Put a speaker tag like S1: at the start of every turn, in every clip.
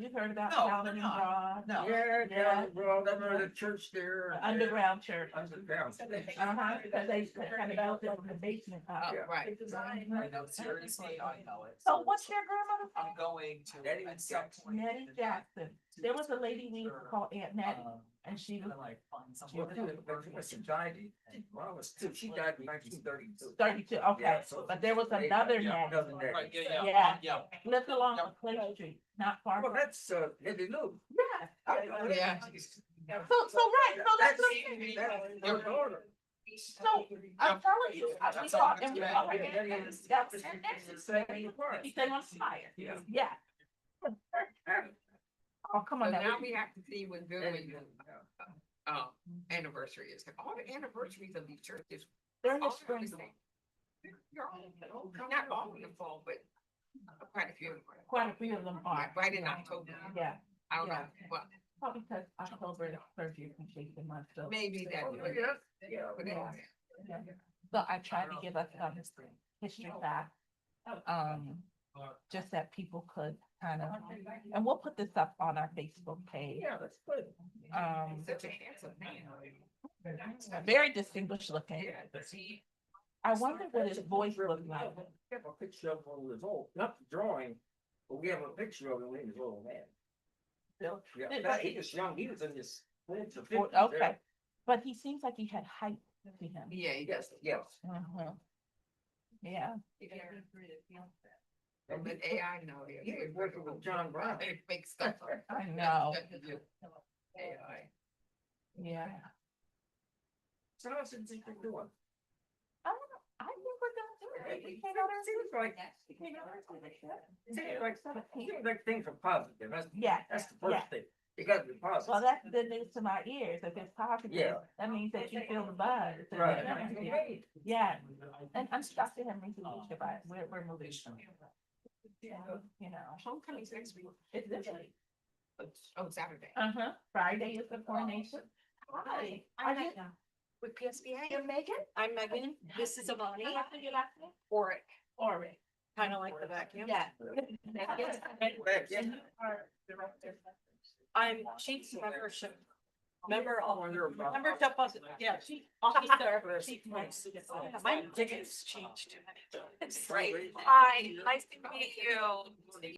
S1: you've heard about
S2: No,
S1: Calvin and
S2: no.
S1: Rod,
S2: No.
S3: Yeah, yeah,
S1: Yeah.
S3: well, remember the church there.
S1: the underground church.
S3: Underground.
S1: Uh-huh, because they kind of built it in the basement.
S2: Oh,
S3: Yeah.
S2: Right.
S1: Design.
S2: I know, seriously, I know it.
S1: So what's their grandmother's
S2: I'm
S1: name?
S2: going to.
S3: Nettie
S2: at some
S3: Jackson.
S2: point
S1: Nettie
S2: in the-
S1: Jackson. There was a lady we used to call Aunt Nettie,
S2: Um,
S1: and she was
S2: gonna, like find someone
S3: Well,
S2: that
S3: she was-
S2: would work
S3: when she
S2: with
S3: was
S2: me.
S3: died, well, I was two, she died in nineteen thirty-two.
S1: thirty-two, okay,
S3: Yeah, so-
S1: but there was another
S2: Yeah.
S1: Nettie,
S3: Another Nettie.
S2: Right, yeah, yeah,
S1: Yeah.
S2: yeah.
S1: lived along
S2: Yeah.
S1: Clay Street, not far
S3: Well,
S1: from.
S3: that's, uh, Lady Lou.
S1: Yeah.
S3: I know that.
S2: Yeah.
S1: So, so right, so that's, what I'm saying.
S3: That's their daughter.
S1: so, I'm telling you, I we
S2: That's all
S1: thought,
S2: that's
S1: and we
S2: bad.
S1: thought,
S2: Yeah,
S1: okay,
S2: yeah,
S1: that's,
S3: yeah.
S1: that's,
S3: It's the same part.
S1: he said on fire,
S3: Yeah.
S1: yeah. Oh, come
S4: So
S1: on now.
S4: now we have to see when
S3: Lady
S4: Goodwin,
S3: Lou, yeah.
S4: uh, anniversary is, all the anniversaries of these churches.
S1: During the
S4: all are
S1: spring,
S4: the same. They're all-
S3: Oh,
S4: Not all in the fall, but quite a few. of them.
S1: quite a few of them are,
S4: Like Right in October,
S1: yeah,
S4: I don't know,
S1: Yeah.
S4: well,
S1: probably because October is surgery complete the month, so.
S4: maybe that.
S3: Oh, yeah, yeah.
S4: but
S1: Yeah.
S4: anyway.
S1: So I tried to give us some history back, um, just that people could kind of, and we'll put this up on our Facebook page.
S3: Yeah, that's good.
S1: Um,
S4: Such a handsome man.
S1: very distinguished looking.
S4: Yeah, but he-
S1: I wonder what his voice looked
S3: We
S1: like.
S3: have a picture of him when he was old, not the drawing, but we have a picture of him when he was an old man.
S1: Bill?
S3: Yeah,
S1: Did-
S3: that- he was young, he was in his. 40s or 50s there.
S1: Okay, but he seems like he had height to him.
S4: Yeah, he
S3: Yes,
S4: does.
S3: yes.
S1: Mhm. Yeah,
S3: And
S4: But
S3: he-
S4: AI now. yeah,
S3: he was
S4: they're-
S3: working with John Brown.
S4: They make stuff up.
S1: I know,
S4: AI.
S1: yeah.
S3: So how's it think they're doing?
S1: I don't know. I think we're gonna do it. We came out our-
S3: Seems like,
S1: we came out our-
S3: seems like,
S1: Seventeen.
S3: seems like things are positive, that's,
S1: Yeah,
S3: that's the
S1: yeah.
S3: first thing, you gotta be
S1: Well,
S3: positive.
S1: that's good news to my ears. If it's positive,
S3: Yeah.
S1: that means that you feel the buzz. It's a good energy.
S3: Right.
S1: Yeah, and I'm stuck in him recently, but we're, we're moving. You know,
S4: Homecoming's next week.
S1: it's this week.
S4: Oh, Saturday.
S1: Uh-huh. Friday is the coronation. Hi.
S5: I'm
S1: Are you-
S5: Megan. With PSBA. You're Megan? I'm Megan. This is Avani.
S1: Oric. Oric.
S5: Kind of like the vacuum.
S1: Yeah.
S3: Back, yeah.
S5: I'm chief membership. Member
S3: I
S5: of,
S3: wonder about-
S5: membership of, yeah, chief officer. chief member.
S3: Oh,
S5: My ticket's changed. It's
S3: Great.
S5: Hi, nice to meet you.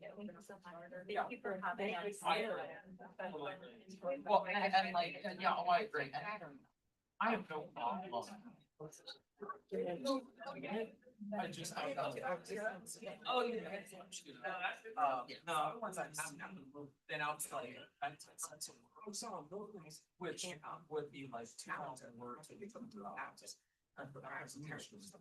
S2: Thank you for having us. Well, and, and like, and yeah, oh, I agree. And I don't- I have no problem. Oh, I just. I love it. Oh, yeah. Uh, no, the ones I'm, I'm, then I'll tell you. I took some to- oh, so I'm looking, Which would be like two thousand words. I think I'm doing that just- I put- I have some pictures.